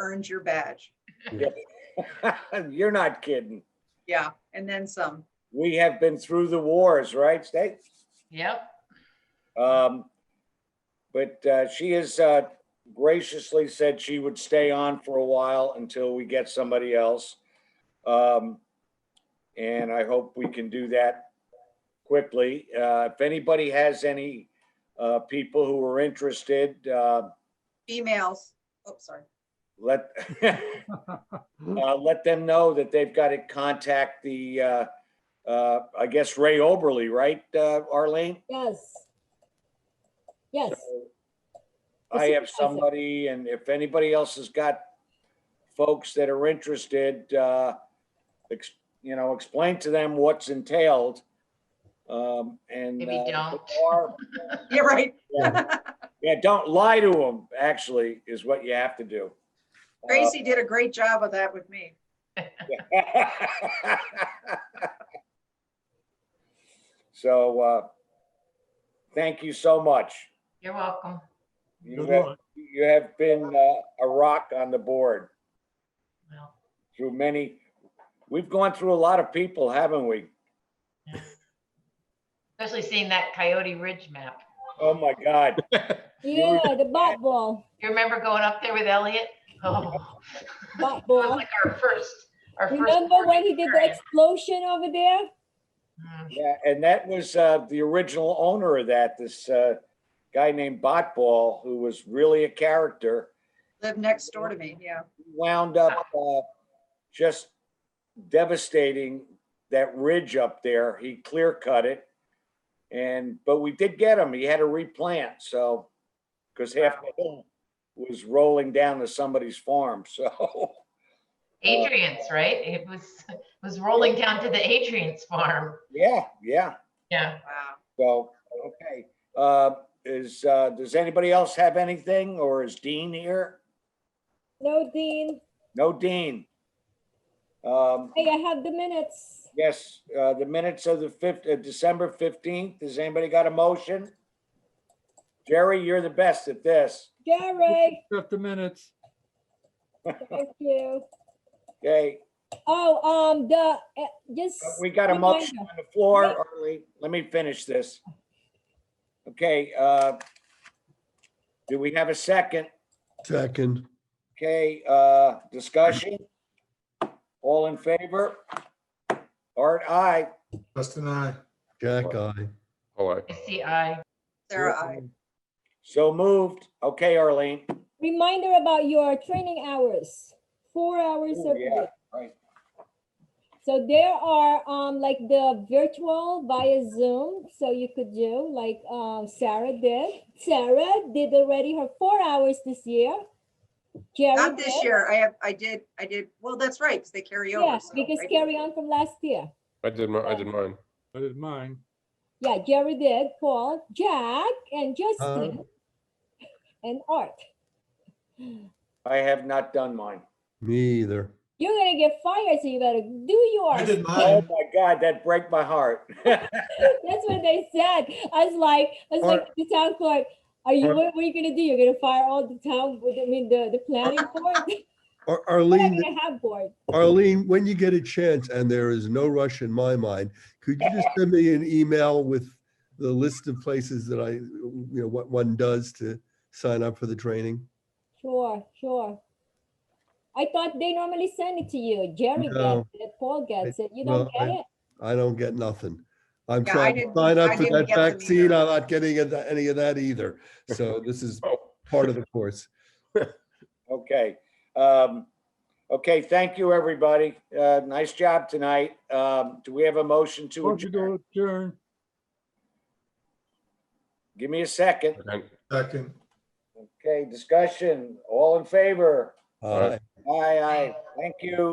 earns your badge. You're not kidding. Yeah, and then some. We have been through the wars, right, State? Yep. Um, but, uh, she has, uh, graciously said she would stay on for a while until we get somebody else. Um, and I hope we can do that quickly. Uh, if anybody has any, uh, people who are interested, uh, Females, oh, sorry. let, uh, let them know that they've got to contact the, uh, uh, I guess Ray Oberly, right, uh, Arlene? Yes. Yes, I Mr. have Kaiser. somebody, and if anybody else has got folks that are interested, uh, ex- you know, explain to them what's entailed. Um, and. Maybe uh, don't. or- Yeah, right. Yeah, don't lie to them, actually, is what you have to do. Uh, Tracy did a great job of that with me. So, uh, thank you so much. You're welcome. You have, you have been, uh, a rock on the board. Well, through many, we've gone through a lot of people, haven't we? Especially seeing that Coyote Ridge map. Oh, my God. yeah, the bot ball, You remember going up there with Elliot? Oh, bot it was ball. like our first, our first. Remember when he did the experience. explosion over there? Mm, Yeah, and that was uh, the original owner of that, this uh, guy named Botball, who was really a character, Lived next door to me, yeah. wound up uh, just devastating that ridge up there. He clear cut it. And, but we did get him. He had to replant, so, because half the hill was rolling down to somebody's farm, so. Adrian's, right? It was, it was rolling down to the Adrian's farm. Yeah, yeah. Yeah. Wow. So, okay, uh, is, uh, does anybody else have anything or is Dean here? No, Dean, No Dean. Um, hey, I have the minutes. yes, uh, the minutes of the fifth, uh, December fifteenth, has anybody got a motion? Jerry, you're the best at this. Jerry, Fifty minutes. thank you. Okay, Oh, um, the, eh, just. we got a motion on the floor, Arlie, let me finish this. Okay, uh, do we have a second? Second, Okay, uh, discussion? All in favor? Art, aye. Justin, I. Jack, I. All right. I see, I, Sarah, I, So moved. Okay, Arlene. Reminder about your training hours, four hours Ooh, a Oh, yeah, week. right. So there are, um, like the virtual via Zoom, so you could do, like, um, Sarah did. Sarah did already her four hours this year. Jerry not this did. year. I have, I did, I did, well, that's right, because they carry over. Yeah, so because I did- carry on from last year. I did my, I did mine. I did mine. Yeah, Jerry did, Paul, Jack, and Justin, and Art. I have not done mine. Me either. You're gonna get fired, so you better do I yours. did Oh mine. my God, that break my heart. That's what they said. I was like, I was like, Art- the town clerk, are you, Art- what what are you gonna do? You're gonna fire all the town, I mean, the, the planning board? Ar- We're not Arlene, gonna have board. Arlene, when you get a chance, and there is no rush in my mind, could you just send me an email with the list of places that I, you know, what one does to sign up for the training? Sure, sure. I thought they normally send it to you. Jerry No. gets it, Paul gets it. You well, don't get I- it? I don't get nothing. I'm Yeah, I trying to didn't- sign I up for didn't that get them either. vaccine. I'm not getting it- any of that either. So this is Oh. part of the course. Okay. Um, okay, thank you, everybody. Uh, nice job tonight. Um, do we have a motion to Motion adjourn? to adjourn. Give me a second. Okay. Second. Okay, discussion. All in favor? All right. Aye, aye. Thank you.